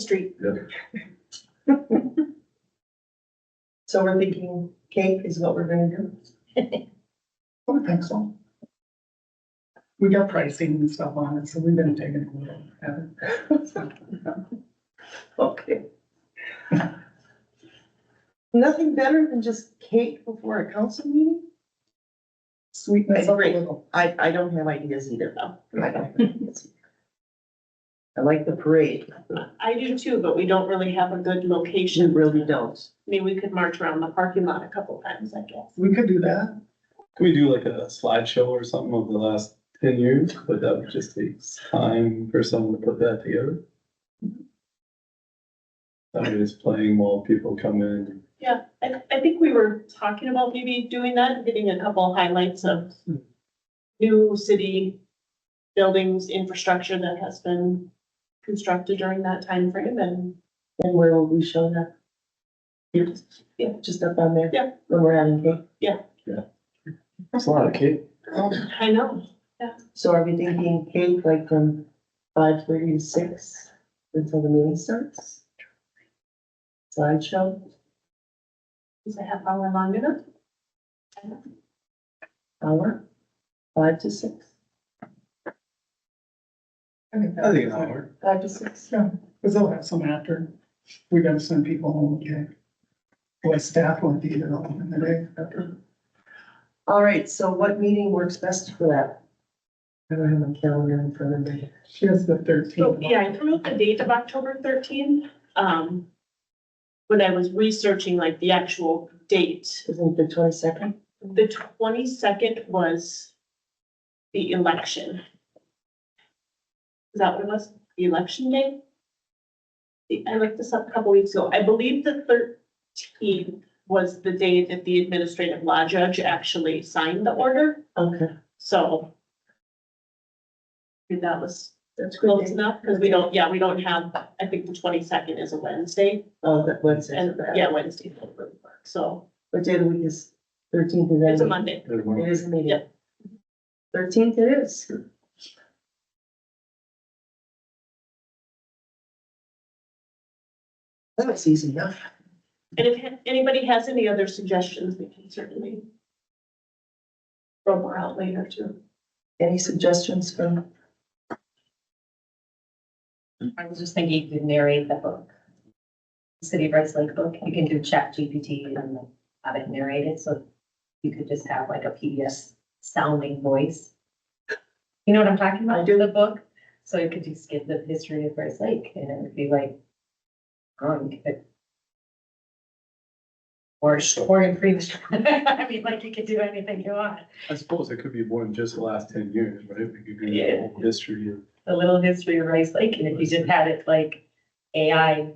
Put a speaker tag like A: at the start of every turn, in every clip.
A: Street.
B: Yeah.
A: So we're thinking cake is what we're gonna do.
C: I would think so. We got pricing and stuff on it, so we've been taking a little. at it.
A: Okay. Nothing better than just cake before a council meeting?
C: Sweetness up a
A: Great.
C: little.
A: I, I don't have ideas either though. I don't have ideas. I like the parade.
D: I do too, but we don't really have a good
A: You
D: location.
A: really don't.
D: I mean, we could march around the parking lot a couple times, I guess.
C: We could do that.
E: Can we do like a slideshow or something of the last ten years, but that would just take time for someone to put that together? Somebody's playing while people come in,
D: I, I think we were talking about maybe doing that, getting a couple highlights of new city buildings, infrastructure that has been constructed during that time frame, and
A: And where will we show that? Yeah, just up on there.
D: Yeah.
A: When we're having cake.
E: it's a lot of kids.
D: I know.
A: So are we thinking cake like from five thirty to six until the meeting starts? Slideshow,
D: Is a half hour long enough?
A: hour, five to six,
C: I think
E: I
C: that-
E: think an hour.
A: five to six.
C: Yeah, because they'll have some after. We gotta send people home, okay? Boy, staff won't be there all in the day after.
A: All right, so what meeting works best for that? I don't have my calendar in front of me.
C: She has the
D: So,
C: thirteenth.
D: yeah, I threw out the date of October thirteenth, um, when I was researching like the actual date.
A: Isn't it the twenty-second?
D: The twenty-second was the election. Is that what it was? The election day? The- I looked this up a couple weeks ago. I believe the thirteenth was the day that the administrative law judge actually signed the order,
A: Okay.
D: so. if That was
A: That's
D: close enough, because we don't, yeah, we don't have, I think the twenty-second is a Wednesday,
A: Oh, that Wednesday,
D: and, yeah, Wednesday. So,
A: what day of the week is thirteenth?
D: it's a Monday.
E: There's one.
A: It is a meeting.
D: Yeah.
A: Thirteenth it is. That was easy enough.
D: And if ha- anybody has any other suggestions, we can certainly throw more out later too.
A: Any suggestions from?
F: I was just thinking you could narrate the book. City of Rice Lake book, you can do chat GPT and like, have it narrated, so you could just have like a PBS sounding voice. You know what I'm talking about?
A: I do.
F: The book, so you could just give the history of Rice Lake and it would be like, um, you could. Or, or in free, I mean, like you could do anything you want.
E: I suppose it could be more than just the last ten years, right? We could do the
F: Yeah.
E: whole history of.
F: the little history of Rice Lake, and if you just had it like AI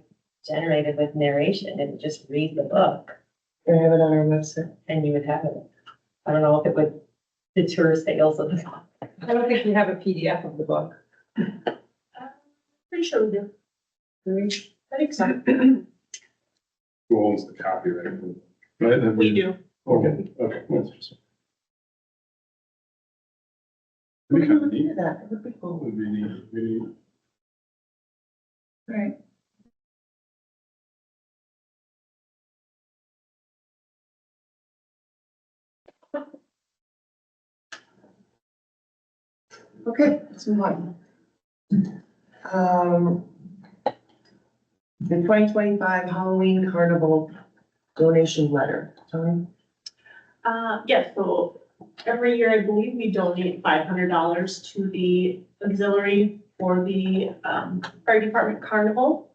F: generated with narration and just read the book,
A: Can I have it on our website?
F: and you would have it. I don't know if it would deter sales of the. I don't think we have a PDF of the book.
D: Uh, Pretty sure we do. I think so.
B: Who owns the copyright?
E: Right? that
D: We do.
E: Okay, okay. that's interesting.
A: We
E: It'd be kind
A: can
E: of neat.
A: do that, that would be
E: That
A: cool.
E: would be neat, really.
C: Right.
A: Okay, let's move on. Um, the twenty twenty-five Halloween Carnival donation letter, Tony?
D: Uh, yes, so every year, I believe we donate five hundred dollars to the auxiliary for the, um, fire department carnival.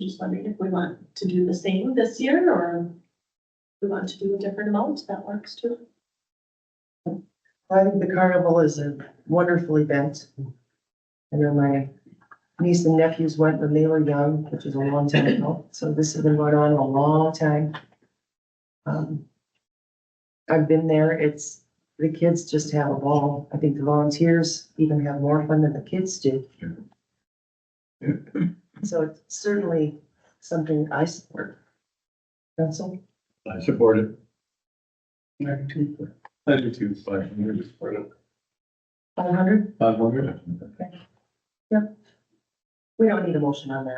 D: Just wondering if we want to do the same this year, or we want to do a different amount, that works too.
A: I think the carnival is a wonderful event. I know my niece and nephews went when they were young, which is a long time ago, so this has been going on a long time. Um, I've been there, it's, the kids just have a ball. I think the volunteers even have more fun than the kids do. So it's certainly something I support. Council,
E: I support it.
C: Nineteenth.
E: I do too, but I'm gonna support it.
A: five hundred?
E: Five hundred?
A: We don't need a motion on that.